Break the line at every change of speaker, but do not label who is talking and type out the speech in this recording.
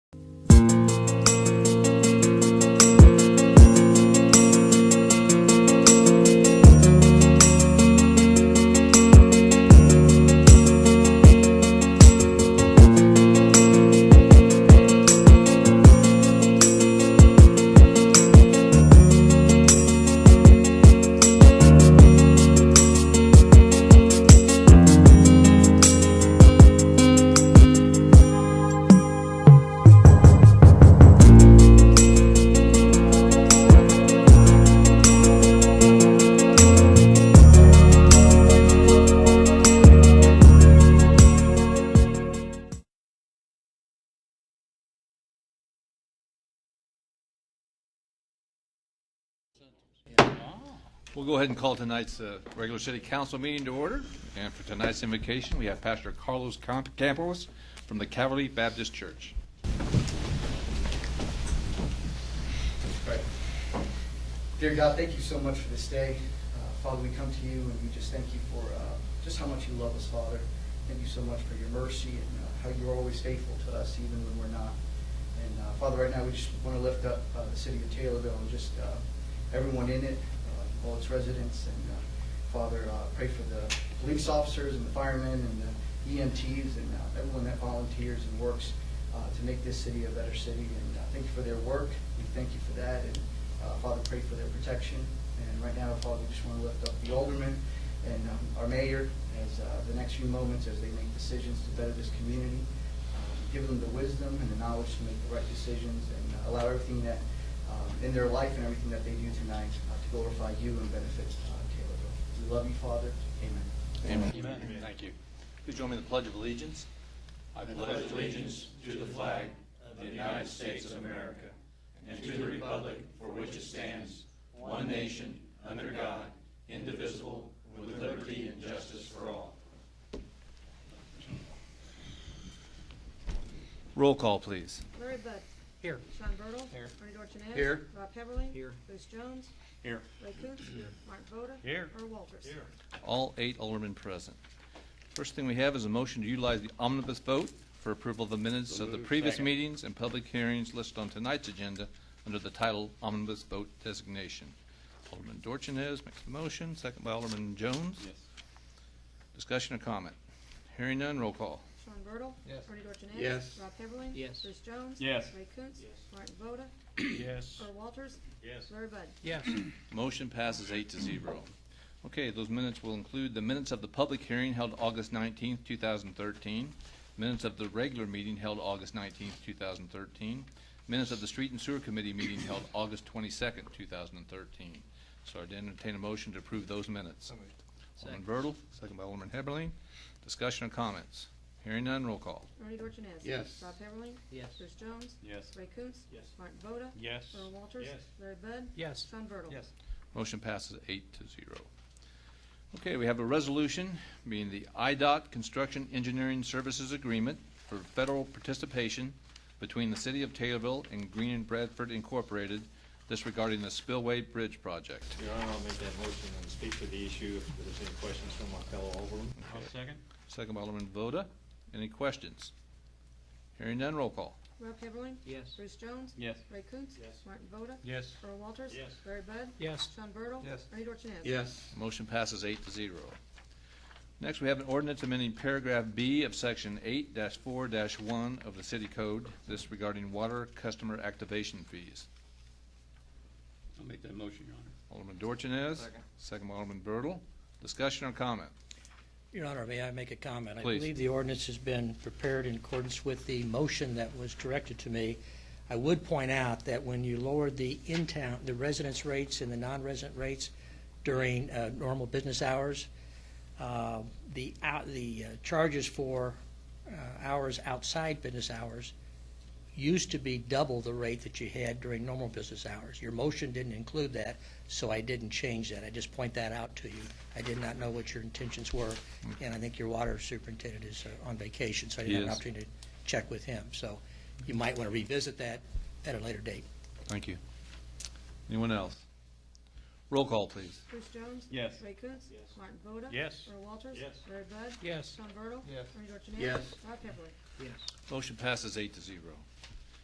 We'll go ahead and call tonight's uh, regular city council meeting to order. And for tonight's invocation, we have Pastor Carlos Camp- Campos from the Calvary Baptist Church.
Dear God, thank you so much for this day. Uh, Father, we come to you and we just thank you for uh, just how much you love us, Father. Thank you so much for your mercy and uh, how you're always faithful to us even when we're not. And uh, Father, right now we just want to lift up uh, the city of Taylorville and just uh, everyone in it, uh, all its residents. And uh, Father, uh, pray for the police officers and the firemen and the EMTs and uh, everyone that volunteers and works uh, to make this city a better city. And uh, thank you for their work. We thank you for that. And uh, Father, pray for their protection. And right now, Father, we just want to lift up the aldermen and um, our mayor as uh, the next few moments as they make decisions to better this community. Um, Give them the wisdom and the knowledge to make the right decisions and uh, allow everything that, um, in their life and everything that they do tonight uh, to glorify you and benefit uh, Taylorville. We love you, Father. Amen.
Amen. Thank you. Please join me in the Pledge of Allegiance.
I pledge allegiance to the flag of the United States of America and to the republic for which it stands, one nation, under God, indivisible, with liberty and justice for all.
Roll call, please.
Larry Bud.
Here.
Sean Bertle.
Here.
Bernie Dorchenez.
Here.
Rob Heatherling.
Here.
Bruce Jones.
Here.
Ray Coontz. Here. Mark Voda.
Here.
Earl Walters. Here.
All eight aldermen present. First thing we have is a motion to utilize the omnibus vote for approval of the minutes of the previous meetings and public hearings listed on tonight's agenda under the title omnibus vote designation. Alderman Dorchenez makes the motion, second by Alderman Jones. Yes. Discussion or comment? Hearing none, roll call.
Sean Bertle.
Yes.
Bernie Dorchenez.
Yes.
Rob Heatherling.
Yes.
Bruce Jones.
Yes.
Ray Coontz. Yes. Mark Voda.
Yes.
Earl Walters.
Yes.
Larry Bud.
Yes.
Motion passes eight to zero. Okay, those minutes will include the minutes of the public hearing held August nineteenth, two thousand thirteen, minutes of the regular meeting held August nineteenth, two thousand thirteen, minutes of the Street and Sewer Committee meeting held August twenty-second, two thousand and thirteen. So I'd entertain a motion to approve those minutes. Alderman Bertle, second by Alderman Heberlin. Discussion or comments? Hearing none, roll call.
Bernie Dorchenez.
Yes.
Rob Heatherling.
Yes.
Bruce Jones.
Yes.
Ray Coontz.
Yes.
Mark Voda.
Yes.
Earl Walters.
Yes.
Larry Bud.
Yes.
Sean Bertle.
Yes.
Motion passes eight to zero. Okay, we have a resolution being the IDOT Construction Engineering Services Agreement for federal participation between the City of Taylorville and Green and Bradford Incorporated disregarding the Spillway Bridge Project.
Your Honor, I'll make that motion and speak to the issue if there's any questions from my fellow Alderman.
second?
Second by Alderman Voda. Any questions? Hearing none, roll call.
Rob Heatherling.
Yes.
Bruce Jones.
Yes.
Ray Coontz.
Yes.
Mark Voda.
Yes.
Earl Walters.
Yes.
Larry Bud.
Yes.
Sean Bertle.
Yes.
Bernie Dorchenez.
Yes.
Motion passes eight to zero. Next, we have an ordinance amending paragraph B of section eight four one of the city code, this regarding water customer activation fees.
I'll make that motion, Your Honor.
Alderman Dorchenez.
Second.
Second by Alderman Bertle. Discussion or comment?
Your Honor, may I make a comment? I
Please.
believe the ordinance has been prepared in accordance with the motion that was directed to me. I would point out that when you lowered the in-town, the residence rates and the non-resident rates during uh, normal business hours, uh, the, out- the uh, charges for uh, hours outside business hours used to be double the rate that you had during normal business hours. Your motion didn't include that, so I didn't change that. I just point that out to you. I did not know what your intentions were, and I think your water superintendent is uh, on vacation, so I
He
didn't have
is.
an opportunity to check with him. So you might want to revisit that at a later date.
Thank you. Anyone else? Roll call, please.
Bruce Jones.
Yes.
Ray Coontz.
Yes.
Martin Voda.
Yes.
Earl Walters.
Yes.
Larry Bud.
Yes.
Sean Bertle.
Yes.
Bernie Dorchenez.
Yes.
Rob Heatherling.
Yes.
Motion passes eight to zero.